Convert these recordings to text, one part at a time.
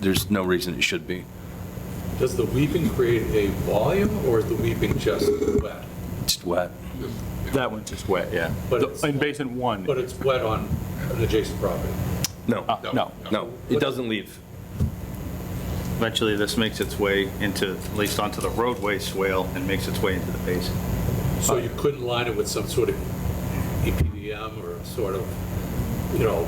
there's no reason it should be. Does the weeping create a volume, or is the weeping just wet? It's wet. That one's just wet, yeah. But it's- In basin one, But it's wet on an adjacent property? No, uh, no. no, it doesn't leave. Eventually, this makes its way into, at least onto the roadway swale and makes its way into the basin. So you couldn't line it with some sort of E EPDM or sort of, you know,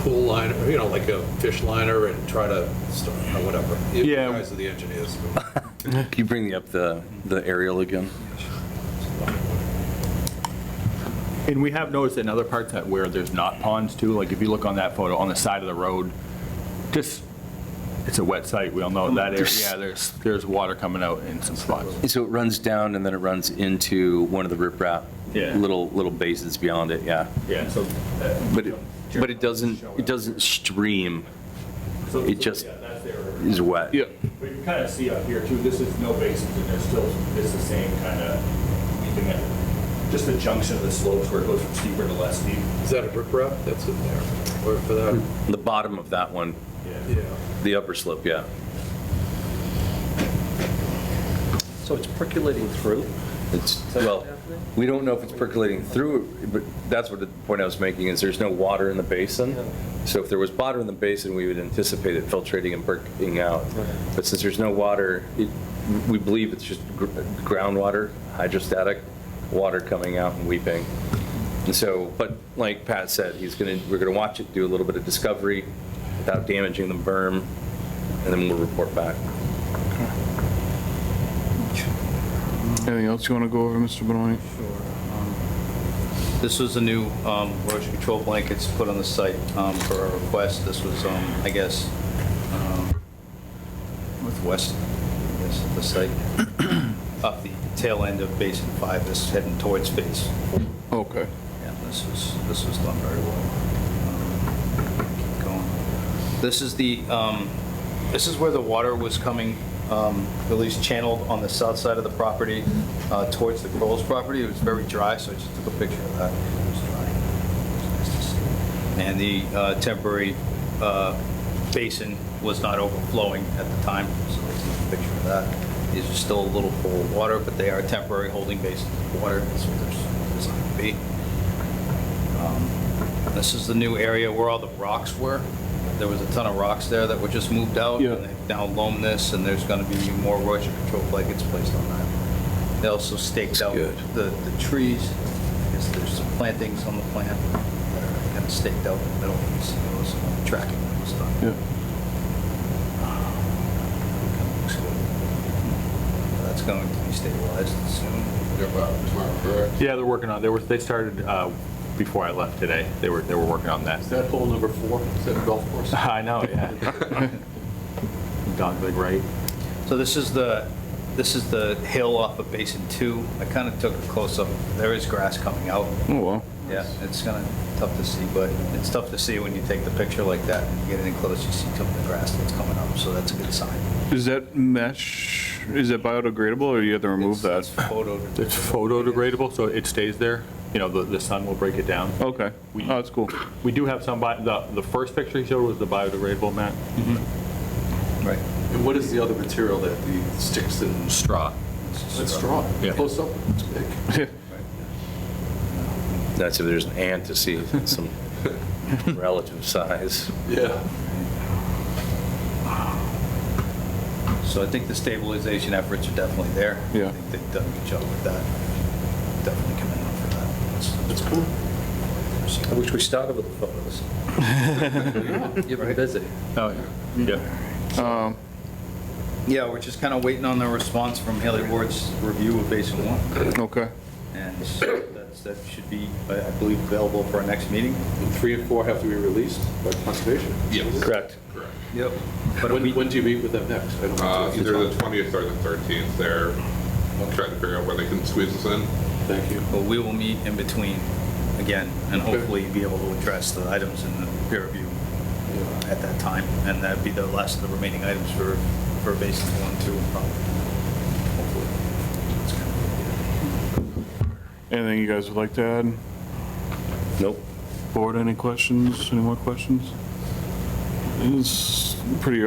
pool liner, you know, like a fish liner and try to, start- or whatever? You Yeah. guys are the engineers. Can you bring up the, the aerial again? And we have noticed in other parts that where there's not ponds too, like if you look on that photo, on the side of the road, just, it's a wet site, we all know that area, yeah, there's, there's water coming out in some spots. So it runs down and then it runs into one of the riprap, Yeah. little, little basins beyond it, yeah. Yeah, so. uh, But, it- but it doesn't, it doesn't stream, it just is wet. Yeah. But you kind of see up here too, this is no basins and there's still, it's the same kind of weeping at, just the junction of the slopes where it goes from steeper to less steep. Is that a riprap that's in there? Or for that? The bottom of that one, Yeah. the upper slope, yeah. So it's percolating through? It's, well, we don't know if it's percolating through, but that's what the point I was making, is there's no water in the basin. So if there was water in the basin, we would anticipate it filtrating and perking out. But since there's no water, it- we believe it's just gr- groundwater, hydrostatic, water coming out and weeping. And so, but like Pat said, he's going to, we're going to watch it do a little bit of discovery without damaging the berm, and then we'll report back. Anything else you want to go over, Mr. Benoit? This was the new um, erosion control blankets put on the site um, for our request. This was, um, I guess, um, northwest, I guess, of the site, up the tail end of Basin 5, this is heading towards Phase Okay. yeah, this was, this was done very well. Um, Keep going. This is the, um, this is where the water was coming, um, at least channeled on the south side of the property uh, towards the Crowell's property. It was very dry, so I just took a picture of that. It was dry. It was nice to see. And the uh, temporary uh, basin was not overflowing at the time, so I took a picture of that. These are still a little full of water, but they are temporary holding basins of water. That's what they're designed to be. Um, This is the new area where all the rocks were. There was a ton of rocks there that were just moved out. Yeah. and They've now loam this, and there's going to be more erosion control blankets placed on that. They also staked out good. the, the trees. I guess there's some plantings on the plant that are kind of staked out in the middle. You see those uh, tracking that was done. Yeah. Looks good. That's going to be stabilized soon. Yeah, they're working on, they were, they started uh, before I left today, they were, they were working on that. that hole number four? Is that a golf course? I know, yeah. Dog leg right. So this is the, this is the hill off of Basin 2. I kind of took a close-up. There is grass coming out. Oh, well. Yeah, it's kind of tough to see, but it's tough to see when you take the picture like that. and You Get in close, you see some of the grass that's coming up, so that's a good sign. Is that mesh, is that biodegradable or you have to remove It's- that? It's photo. It's photodegradable, so it stays there, you know, the, the sun will break it down. Okay. Oh, that's cool. We do have some, bi- the, the first picture he showed was the biodegradable mat. Right. And what is the other material that the sticks and straw? It's straw. Yeah. Close up, it's big. That's if there's an ant to see if it's some relative size. Yeah. So I think the stabilization efforts are definitely there. Yeah. I think they've done a good job with that. Definitely commend them for that. That's- It's cool. I wish we started with the photos. You've been busy. Oh, yeah. Um, Yeah, we're just kind of waiting on the response from Haley Ward's review of Basin 1. Okay. And so that's, that should be, I I believe, available for our next meeting. And three and four have to be released by conservation? Yes. Correct. Yep. But When, when do you meet with them next? I don't know. Uh, Either the 20th or the 13th, they're trying to figure out where they can squeeze us in. Thank you. But we will meet in between again and Okay. hopefully be able to address the items in the peer review uh, at that time. And that'd be the last of the remaining items for, for basis one, two, and probably. Hopefully. That's kind of Anything you guys would like to add? Nope. Board, any questions? Any more questions? It's pretty